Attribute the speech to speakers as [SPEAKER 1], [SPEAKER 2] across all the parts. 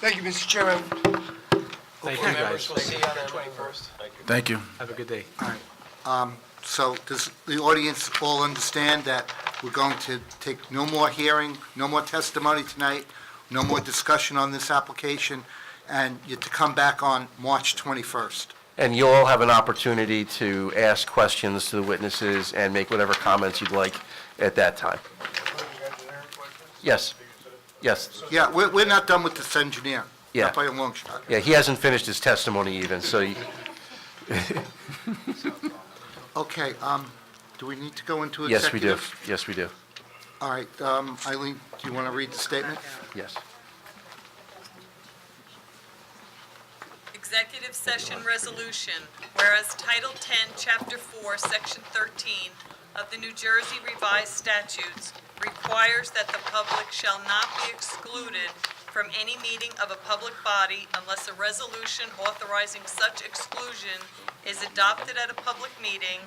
[SPEAKER 1] Thank you, Mr. Chairman.
[SPEAKER 2] Thank you, guys.
[SPEAKER 3] We'll see you on the 21st.
[SPEAKER 4] Thank you.
[SPEAKER 2] Have a good day.
[SPEAKER 5] So does the audience all understand that we're going to take no more hearing, no more testimony tonight, no more discussion on this application, and you're to come back on March 21st?
[SPEAKER 6] And you'll all have an opportunity to ask questions to the witnesses and make whatever comments you'd like at that time. Yes, yes.
[SPEAKER 5] Yeah, we're, we're not done with this engineer.
[SPEAKER 6] Yeah.
[SPEAKER 5] Not by a long shot.
[SPEAKER 6] Yeah, he hasn't finished his testimony even, so you-
[SPEAKER 5] Okay, um, do we need to go into
[SPEAKER 6] yes, we
[SPEAKER 5] executive?
[SPEAKER 6] do. Yes, we do.
[SPEAKER 5] All right, um, Eileen, do you want to read the statement?
[SPEAKER 6] Yes.
[SPEAKER 7] Executive Session Resolution, whereas Title 10, Chapter 4, Section 13 of the New Jersey Revised Statutes requires that the public shall not be excluded from any meeting of a public body unless a resolution authorizing such exclusion is adopted at a public meeting,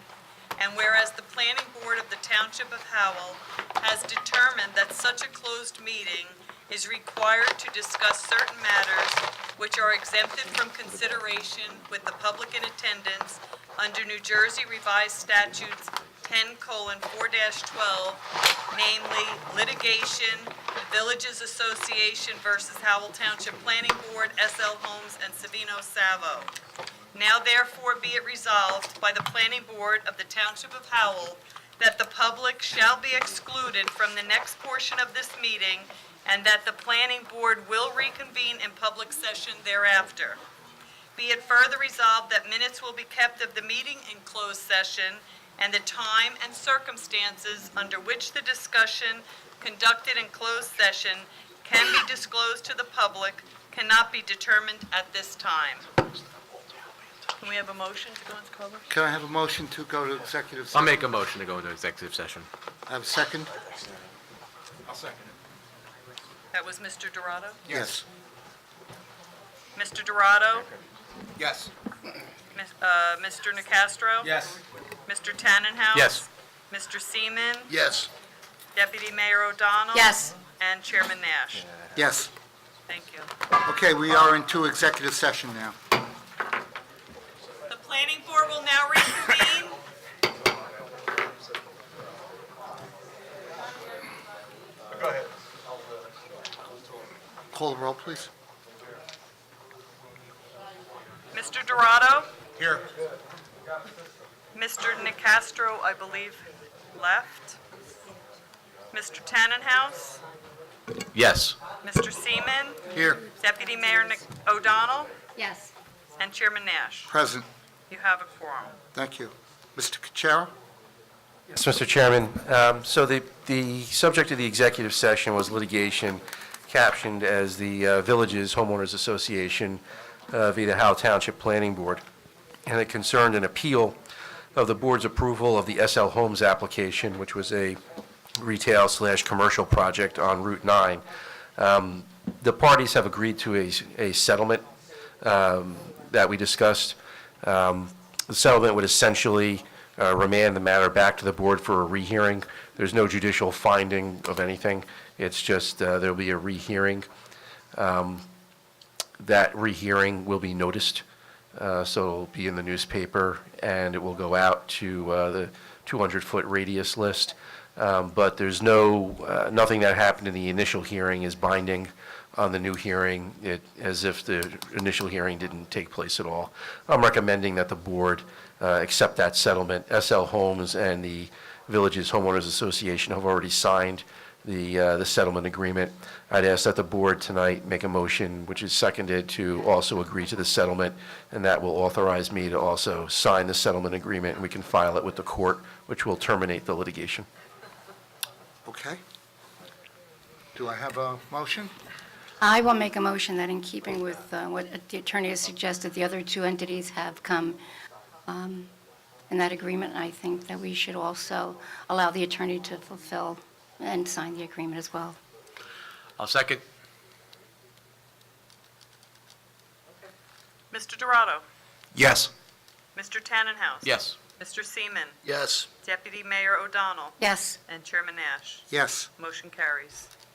[SPEAKER 7] and whereas the Planning Board of the Township of Howell has determined that such a closed meeting is required to discuss certain matters which are exempted from consideration with the public in attendance under New Jersey Revised Statutes 10:4-12, namely litigation, Villages Association versus Howell Township Planning Board, SL Homes, and Savino Savo. Now therefore be it resolved by the Planning Board of the Township of Howell that the public shall be excluded from the next portion of this meeting and that the Planning Board will reconvene in public session thereafter. Be it further resolved that minutes will be kept of the meeting in closed session and the time and circumstances under which the discussion conducted in closed session can be disclosed to the public cannot be determined at this time. Can we have a motion to go into closed?
[SPEAKER 5] Can I have a motion to go to executive session?
[SPEAKER 2] I'll make a motion to go into executive session.
[SPEAKER 5] I Have a second?
[SPEAKER 7] That was Mr. Dorado.
[SPEAKER 5] Yes.
[SPEAKER 7] Mr. Dorado,
[SPEAKER 1] Yes.
[SPEAKER 7] Mis- uh, Mr. Nacastro.
[SPEAKER 1] Yes.
[SPEAKER 7] Mr. Tannenhouse.
[SPEAKER 2] Yes.
[SPEAKER 7] Mr. Seaman,
[SPEAKER 5] Yes.
[SPEAKER 7] Deputy Mayor O'Donnell.
[SPEAKER 8] Yes.
[SPEAKER 7] And Chairman Nash.
[SPEAKER 5] Yes.
[SPEAKER 7] Thank you.
[SPEAKER 5] Okay, we are into executive session now.
[SPEAKER 7] The planning board will now reconvene.
[SPEAKER 5] Call the roll, please.
[SPEAKER 7] Mr. Dorado,
[SPEAKER 1] Here.
[SPEAKER 7] Mr. Nacastro, I believe, left. Mr. Tannenhouse,
[SPEAKER 6] Yes.
[SPEAKER 7] Mr. Seaman,
[SPEAKER 5] Here.
[SPEAKER 7] Deputy Mayor Nic- O'Donnell,
[SPEAKER 8] Yes.
[SPEAKER 7] and Chairman Nash.
[SPEAKER 5] Present.
[SPEAKER 7] You have a quorum.
[SPEAKER 5] Thank you. Mr. Kachara?
[SPEAKER 6] Yes, Mr. Chairman. Um, So the, the subject of the executive session was litigation captioned as the uh, Villages Homeowners Association uh, via the Howe Township Planning Board. And it concerned an appeal of the board's approval of the SL Homes application, which was a retail slash commercial project on Route 9. Um, The parties have agreed to a, a settlement um, that we discussed. Um, The settlement would essentially uh, remand the matter back to the board for a rehearing. There's no judicial finding of anything. It's just, uh, there'll be a rehearing. Um, That rehearing will be noticed, uh, so it'll be in the newspaper, and it will go out to uh, the 200-foot radius list. Um, But there's no, uh, nothing that happened in the initial hearing is binding on the new hearing, it, as if the initial hearing didn't take place at all. I'm recommending that the board uh, accept that settlement. SL Homes and the Villages Homeowners Association have already signed the, uh, the settlement agreement. I'd ask that the board tonight make a motion, which is seconded, to also agree to the settlement, and that will authorize me to also sign the settlement agreement, and we can file it with the court, which will terminate the litigation.
[SPEAKER 5] Okay. Do I have a motion?
[SPEAKER 8] I will make a motion that in keeping with uh, what the attorney has suggested, the other two entities have come um, in that agreement, I think that we should also allow the attorney to fulfill and sign the agreement as well.
[SPEAKER 2] I'll second.
[SPEAKER 7] Mr. Dorado,
[SPEAKER 4] Yes.
[SPEAKER 7] Mr. Tannenhouse.
[SPEAKER 2] Yes.
[SPEAKER 7] Mr. Seaman,
[SPEAKER 5] Yes.
[SPEAKER 7] Deputy Mayor O'Donnell,
[SPEAKER 8] Yes.
[SPEAKER 7] and Chairman Nash.
[SPEAKER 5] Yes.
[SPEAKER 7] Motion carries.